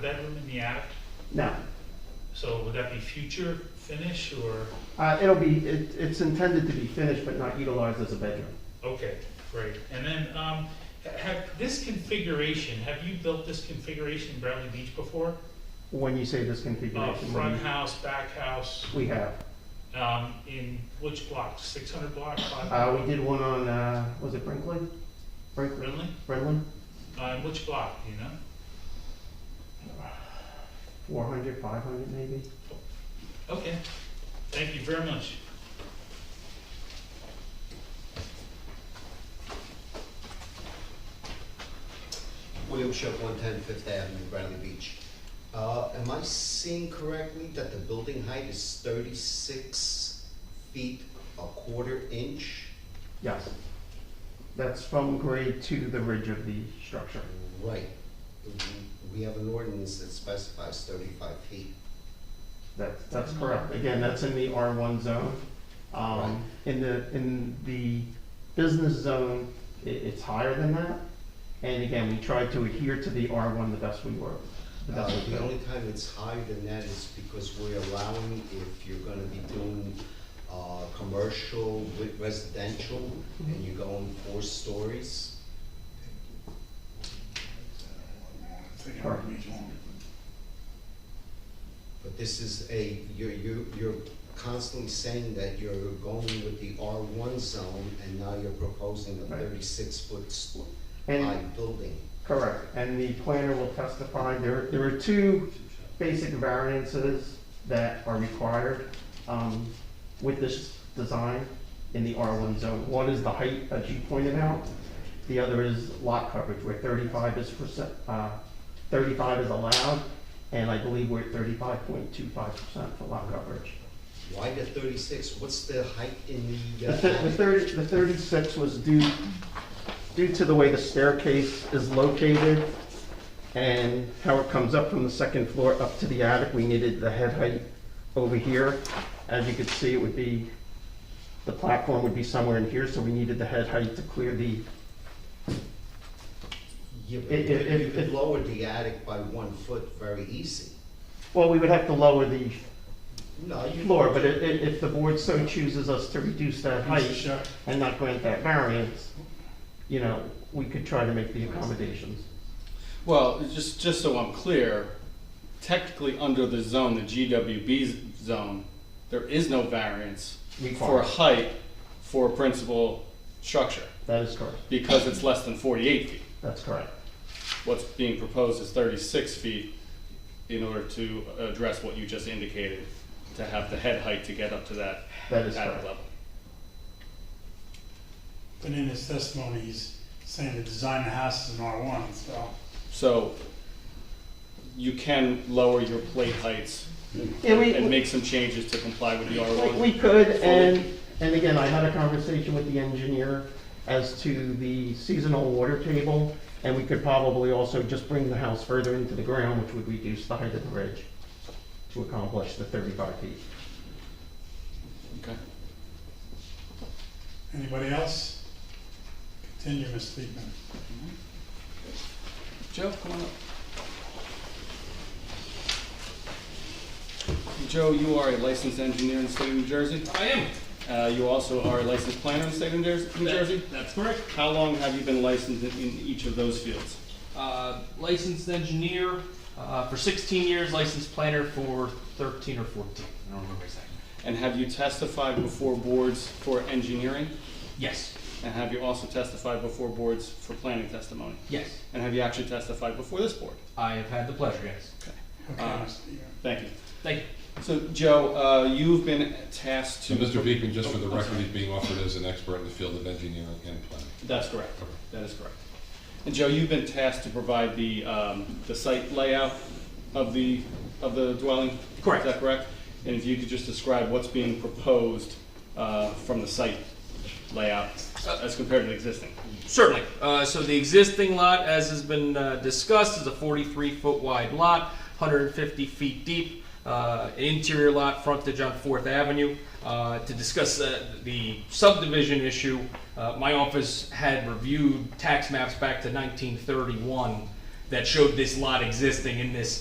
bedroom in the attic, No, so would that be future finish or, uh, it'll be, it, it's intended to be finished but not utilized as a bedroom. okay, great. And then, um, ha- have, this configuration, have you built this configuration in Bradley Beach before? When you say this Uh, configuration, what do front you- house, back house, we have, um, in which block, six hundred block, five? uh, we did one on, uh, was it Brinkley? Brinkley, Really? Brenlin, Uh, in which block, do you know? four hundred, five hundred maybe? Okay, thank you very much. William Shep, 110 Fifth Avenue, Bradley Beach. Uh, Am I seeing correctly that the building height is 36 feet, a quarter inch? Yes. That's from grade to the ridge of the structure. Right. We have an ordinance that specifies 35 feet. That's, that's correct. Again, that's in the R1 zone. Right. Um, in the, in the business zone, i it's higher than that. And again, we tried to adhere to the R1 the best we were. the Uh, best we The could. only time it's higher than that is because we're allowing, if you're gonna be doing uh, commercial with residential, and you're going four stories, Sure. But this is a, you're, you're, you're constantly saying that you're going with the R one zone and now you're proposing a Right. thirty-six foot squ- high And, building. correct. And the planner will testify. There, there are two basic variances that are required, um, with this design in the R1 zone. One is the height, as you pointed out. The other is lot coverage, where thirty-five is percent, uh, thirty-five is allowed, and I believe we're at thirty-five point two five percent for lot coverage. Why the thirty-six? What's the height in the, The uh, thi- the attic? thirty, the thirty-six was due, due to the way the staircase is located and how it comes up from the second floor up to the attic, we needed the head height over here. As you could see, it would be, the platform would be somewhere in here, so we needed the head height to clear the, You it- it- could, you it- could it- lower the attic by one foot very easy. well, we would have to lower the No, you. floor, but i- i- if the board so chooses us to reduce that Mr. height Shep, and not grant that variance, you know, we could try to make the accommodations. Well, just, just so I'm clear, technically under the zone, the GWB zone, there is no variance for Required. height for a principal structure That is correct, because it's less than 48 feet. that's correct. What's being proposed is 36 feet in order to address what you just indicated, to have the head height to get up to that That is attic correct. level. but in his testimony, he's saying the design of the house is an R one, so. So you can lower your plate heights Yeah, and we, make some changes to comply with the we- R1. we could, and, and again, I had a conversation with the engineer as to the seasonal water table, and we could probably also just bring the house further into the ground, which would reduce the height of the ridge to accomplish the thirty-five feet. Okay. Anybody else? Continue, Mr. Speakman. Joe, come on up. Joe, you are a licensed engineer in the state of New Jersey. I am. Uh, you also are a licensed planner in the state of New Jersey- New That- Jersey. That's correct. How long have you been licensed in, in each of those fields? Uh, licensed engineer uh, for 16 years, licensed planner for 13 or 14. I don't remember exactly. And have you testified before boards for engineering? Yes, And have you also testified before boards for planning testimony? yes. And have you actually testified before this board? I have had the pleasure, yes. Okay, Uh, Mr. Speakman. Thank you. Thank you. So, Joe, uh, you've been tasked to. So Mr. Beekman, just for the Oh, I'm record, sorry. he's being offered as an expert in the field of engineering and planning. That's correct. That is correct. And Joe, you've been tasked to provide the, um, the site layout of the, of the dwelling? Correct. Is that correct? And if you could just describe what's being proposed, uh, from the site layout as compared to the existing? Certainly. Uh, so the existing lot, as has been uh, discussed, is a 43 foot wide lot, 150 feet deep. Uh, interior lot frontage on Fourth Avenue. Uh, to discuss uh, the subdivision issue, uh, my office had reviewed tax maps back to 1931 that showed this lot existing in this